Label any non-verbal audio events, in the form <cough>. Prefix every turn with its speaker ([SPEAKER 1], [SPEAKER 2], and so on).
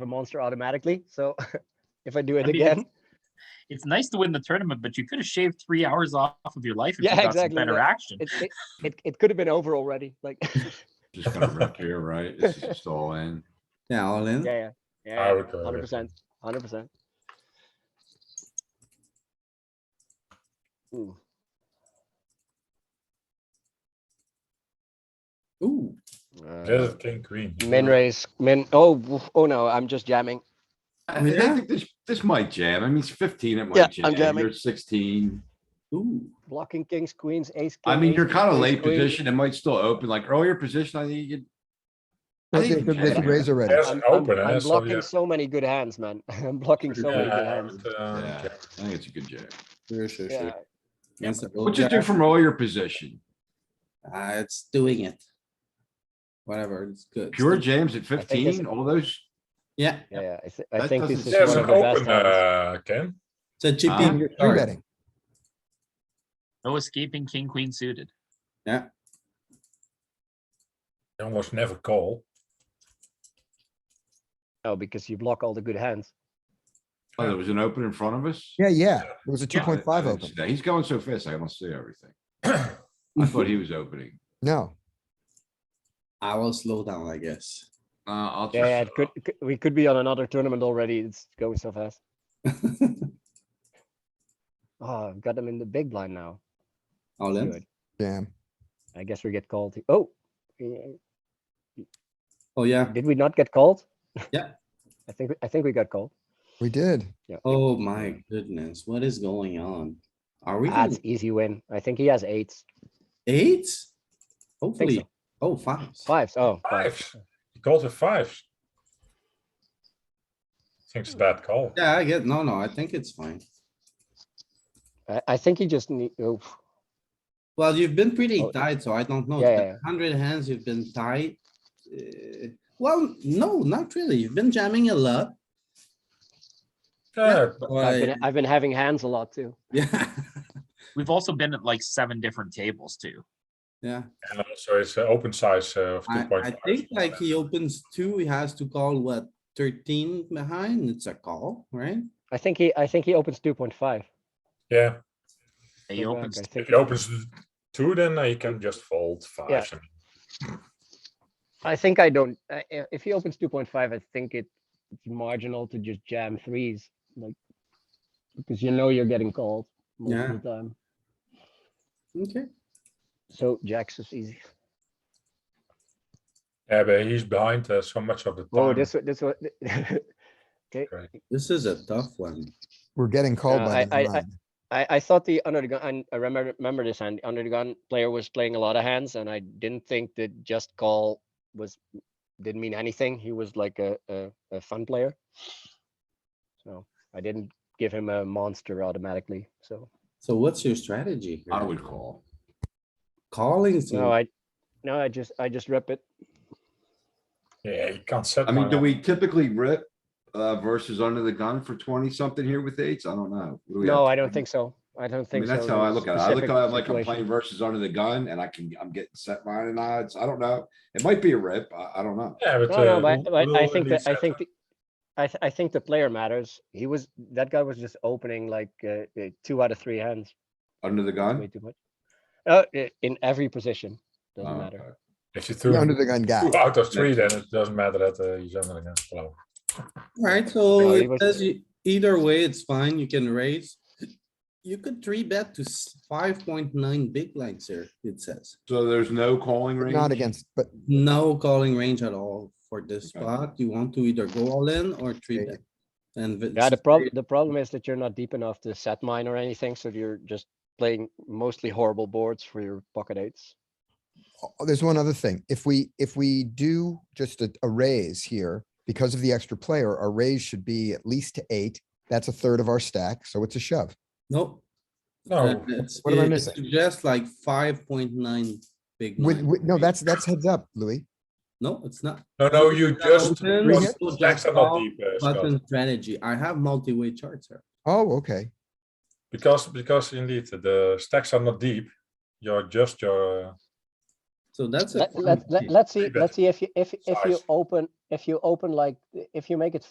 [SPEAKER 1] a monster automatically. So <laughs> if I do it
[SPEAKER 2] I mean,
[SPEAKER 3] <laughs>
[SPEAKER 1] again,
[SPEAKER 2] It's nice to win the tournament, but you could have shaved three hours off of your life if
[SPEAKER 1] Yeah,
[SPEAKER 2] you got
[SPEAKER 1] exactly,
[SPEAKER 2] some better
[SPEAKER 1] yeah.
[SPEAKER 2] action.
[SPEAKER 1] it, it, it, it could have been over already. Like, <laughs> yeah,
[SPEAKER 4] Just gonna wreck here, right? This is just all in.
[SPEAKER 5] Yeah, all in.
[SPEAKER 1] yeah,
[SPEAKER 3] I
[SPEAKER 1] yeah,
[SPEAKER 3] would go
[SPEAKER 1] hundred
[SPEAKER 3] with
[SPEAKER 1] percent, hundred percent.
[SPEAKER 5] Ooh,
[SPEAKER 3] Just king queen.
[SPEAKER 1] Uh, Min raise, min. Oh, woof, oh no, I'm just jamming.
[SPEAKER 4] I mean, I
[SPEAKER 5] Yeah.
[SPEAKER 4] think this, this might jam. I mean, it's fifteen, it
[SPEAKER 1] Yeah,
[SPEAKER 4] might
[SPEAKER 1] I'm
[SPEAKER 4] jam.
[SPEAKER 1] jamming.
[SPEAKER 4] You're sixteen.
[SPEAKER 5] ooh.
[SPEAKER 1] Blocking kings, queens, ace.
[SPEAKER 4] I
[SPEAKER 1] king,
[SPEAKER 4] mean,
[SPEAKER 1] ace
[SPEAKER 4] you're
[SPEAKER 1] king,
[SPEAKER 4] kind of
[SPEAKER 1] ace
[SPEAKER 4] late
[SPEAKER 1] queen.
[SPEAKER 4] position. It might still open, like earlier position, I think you could. I
[SPEAKER 6] They
[SPEAKER 4] think you
[SPEAKER 6] could,
[SPEAKER 4] can
[SPEAKER 6] they could
[SPEAKER 4] jam.
[SPEAKER 6] raise already.
[SPEAKER 3] Yes.
[SPEAKER 1] I'm,
[SPEAKER 3] It's
[SPEAKER 1] I'm,
[SPEAKER 3] open, eh?
[SPEAKER 1] I'm
[SPEAKER 3] So,
[SPEAKER 1] blocking
[SPEAKER 3] yeah.
[SPEAKER 1] so many good hands, man. <laughs> I'm blocking so many
[SPEAKER 3] <laughs>
[SPEAKER 1] good
[SPEAKER 3] Yeah, I
[SPEAKER 1] hands.
[SPEAKER 3] would, um,
[SPEAKER 4] Yeah,
[SPEAKER 3] check.
[SPEAKER 4] I think it's a good jam.
[SPEAKER 6] Sure, sure,
[SPEAKER 1] Yeah.
[SPEAKER 6] sure.
[SPEAKER 5] Against the
[SPEAKER 4] What you do
[SPEAKER 5] Jack.
[SPEAKER 4] from earlier position?
[SPEAKER 5] Uh, it's doing it. Whatever, it's good. It's
[SPEAKER 4] Pure
[SPEAKER 5] good.
[SPEAKER 4] jams at
[SPEAKER 1] I think it's-
[SPEAKER 4] fifteen, all those,
[SPEAKER 5] Yeah,
[SPEAKER 1] Yeah, yeah, I, th- I
[SPEAKER 4] That
[SPEAKER 1] think this
[SPEAKER 4] doesn't
[SPEAKER 1] is
[SPEAKER 3] Yeah,
[SPEAKER 1] one
[SPEAKER 3] it's
[SPEAKER 1] of
[SPEAKER 4] sound
[SPEAKER 3] an
[SPEAKER 1] the best
[SPEAKER 3] open,
[SPEAKER 1] hands.
[SPEAKER 3] uh, Ken.
[SPEAKER 5] it's a
[SPEAKER 4] Ah.
[SPEAKER 5] chipping your
[SPEAKER 6] Three
[SPEAKER 5] card.
[SPEAKER 6] betting.
[SPEAKER 2] No escaping king, queen suited.
[SPEAKER 3] You almost never call.
[SPEAKER 1] No, because you block all the good hands.
[SPEAKER 4] oh, there was an open in front of us?
[SPEAKER 6] Yeah, yeah. It was a two
[SPEAKER 3] Yeah.
[SPEAKER 6] point five
[SPEAKER 4] I didn't
[SPEAKER 6] open.
[SPEAKER 4] see that. He's going so fast, I don't see everything.
[SPEAKER 3] Well,
[SPEAKER 4] I thought he was opening.
[SPEAKER 6] No,
[SPEAKER 5] I will slow down, I guess.
[SPEAKER 4] Uh, I'll
[SPEAKER 1] Yeah, yeah,
[SPEAKER 4] just,
[SPEAKER 1] it could, it could- we could be on another tournament already. It's going so fast. Oh, I've got them in the big blind now.
[SPEAKER 5] All in.
[SPEAKER 1] Good.
[SPEAKER 6] damn.
[SPEAKER 1] I guess we get called. he- Oh, eh,
[SPEAKER 5] Oh, yeah.
[SPEAKER 1] did we not get called?
[SPEAKER 5] Yeah.
[SPEAKER 1] I think, I think we got called.
[SPEAKER 6] We did.
[SPEAKER 5] Oh, my goodness. What is going on? Are we
[SPEAKER 1] That's
[SPEAKER 5] doing
[SPEAKER 1] Ah, easy win. I think he has eights,
[SPEAKER 5] eight? Hopefully.
[SPEAKER 1] so.
[SPEAKER 5] Oh, five.
[SPEAKER 1] fives. Oh, five.
[SPEAKER 3] Fives. He calls with fives. Thinks a bad call.
[SPEAKER 5] Yeah, I get, no, no, I think it's fine.
[SPEAKER 1] I, I think he just need, oh,
[SPEAKER 5] Well, you've been pretty
[SPEAKER 1] Oh.
[SPEAKER 5] tight, so I don't know.
[SPEAKER 1] Yeah, yeah, yeah.
[SPEAKER 5] Hundred hands, you've been tight. Uh, Well, no, not really. You've been jamming a lot.
[SPEAKER 3] Yeah, but
[SPEAKER 1] I've
[SPEAKER 5] Why-
[SPEAKER 1] been, I've been having hands a lot too.
[SPEAKER 5] Yeah,
[SPEAKER 2] We've also been at like seven different tables too.
[SPEAKER 5] <laughs> yeah.
[SPEAKER 3] and also it's an open size uh, of two
[SPEAKER 5] I,
[SPEAKER 3] point
[SPEAKER 5] I
[SPEAKER 3] five.
[SPEAKER 5] think like he opens two, he has to call what, thirteen behind? It's a call, right?
[SPEAKER 1] I think he, I think he opens two point five.
[SPEAKER 3] Yeah,
[SPEAKER 2] He opens
[SPEAKER 1] I
[SPEAKER 3] if
[SPEAKER 1] think,
[SPEAKER 3] he opens two, then uh, he can just fold fives. and-
[SPEAKER 1] I think I don't, I- i- if he opens two point five, I think it- it's marginal to just jam threes, like. Because you know you're getting called most
[SPEAKER 5] Yeah.
[SPEAKER 1] of the time,
[SPEAKER 5] Okay,
[SPEAKER 1] so jacks is easy.
[SPEAKER 3] Yeah, but he's behind uh, so much of the time.
[SPEAKER 1] Oh, this, one- this, one-
[SPEAKER 5] this is a tough one.
[SPEAKER 6] We're getting called
[SPEAKER 1] Yeah,
[SPEAKER 6] by
[SPEAKER 1] I-
[SPEAKER 6] the
[SPEAKER 1] I- I-
[SPEAKER 6] line.
[SPEAKER 1] <laughs> I, I thought the under the gun, and I remember, remember this hand, the under the gun player was playing a lot of hands and I didn't think that just call was, didn't mean anything. He was like a, a, a fun player. So I didn't give him a monster automatically, so.
[SPEAKER 5] So what's your strategy? here?
[SPEAKER 4] I would call.
[SPEAKER 5] Calling,
[SPEAKER 1] No,
[SPEAKER 4] Mm.
[SPEAKER 5] so
[SPEAKER 1] I, no, I just, I just rep it.
[SPEAKER 3] Yeah, he can't set.
[SPEAKER 4] I mean,
[SPEAKER 3] one
[SPEAKER 4] do
[SPEAKER 3] up.
[SPEAKER 4] we typically rip, uh, versus under the gun for twenty something here with eights? I don't know. What do we
[SPEAKER 1] No,
[SPEAKER 4] have?
[SPEAKER 1] I don't think so. I don't
[SPEAKER 4] Oh, I mean,
[SPEAKER 1] think so.
[SPEAKER 4] that's how I look at it. I look at it like I'm playing
[SPEAKER 1] player.
[SPEAKER 4] versus under the gun and I can, I'm getting set line and odds. I don't know. It might be a rip. I, I don't know.
[SPEAKER 3] Yeah, but.
[SPEAKER 1] No, no,
[SPEAKER 3] uh,
[SPEAKER 1] but,
[SPEAKER 3] who-
[SPEAKER 1] but
[SPEAKER 3] who
[SPEAKER 1] I
[SPEAKER 3] will
[SPEAKER 1] think
[SPEAKER 3] he
[SPEAKER 1] that, I
[SPEAKER 3] set
[SPEAKER 1] think,
[SPEAKER 3] up?
[SPEAKER 1] the- I, th- I think the player matters. He was, that guy was just opening like, uh, uh, two out of three hands.
[SPEAKER 4] Under the
[SPEAKER 1] way
[SPEAKER 4] gun?
[SPEAKER 1] too much. Uh, i- in every position, doesn't
[SPEAKER 4] Oh,
[SPEAKER 1] matter.
[SPEAKER 4] okay.
[SPEAKER 3] If you
[SPEAKER 6] The
[SPEAKER 3] threw
[SPEAKER 6] under the gun guy.
[SPEAKER 3] two out of three, then it doesn't matter that uh, he's under the gun. Hello.
[SPEAKER 5] Alright,
[SPEAKER 1] No,
[SPEAKER 5] so
[SPEAKER 1] he
[SPEAKER 5] it
[SPEAKER 1] was-
[SPEAKER 5] says you- either way, it's fine, you can raise. You could three bet to five point nine big blinds here, it says.
[SPEAKER 4] So there's no calling range?
[SPEAKER 6] Not against, but
[SPEAKER 5] No calling range at all for this
[SPEAKER 4] Okay.
[SPEAKER 5] spot. You want to either go all in or three bet. And if
[SPEAKER 1] Yeah, the
[SPEAKER 5] it's-
[SPEAKER 1] problem, the problem is that you're not deep enough to set mine or anything, so you're just playing mostly horrible boards for your pocket eights.
[SPEAKER 6] oh, there's one other thing. If we, if we do just a, a raise here, because of the extra player, our raise should be at least to eight. That's a third of our stack, so it's a shove.
[SPEAKER 5] Nope. uh,
[SPEAKER 3] No,
[SPEAKER 5] it's-
[SPEAKER 6] Oh, What am I
[SPEAKER 5] it
[SPEAKER 6] missing?
[SPEAKER 5] suggests like five point nine big
[SPEAKER 6] With,
[SPEAKER 5] blind.
[SPEAKER 6] with- no, that's, that's heads up, Louis.
[SPEAKER 5] No, it's not.
[SPEAKER 3] no, no, you just.
[SPEAKER 5] Open,
[SPEAKER 6] Bring
[SPEAKER 3] just-
[SPEAKER 6] it.
[SPEAKER 5] so
[SPEAKER 3] Jacks
[SPEAKER 5] just
[SPEAKER 3] are not
[SPEAKER 5] call
[SPEAKER 3] deep, uh, Scott.
[SPEAKER 5] Button strategy. I have multi-way charts here.
[SPEAKER 6] Oh, okay.
[SPEAKER 3] Because, because indeed, the stacks are not deep. You're just your, uh,
[SPEAKER 5] So that's. a
[SPEAKER 1] Let,
[SPEAKER 5] fun
[SPEAKER 1] let,
[SPEAKER 5] thing.
[SPEAKER 1] let, us see,
[SPEAKER 3] Three bet.
[SPEAKER 1] let's see if you, if, if you
[SPEAKER 3] Size.
[SPEAKER 1] open, if you open like, if you make it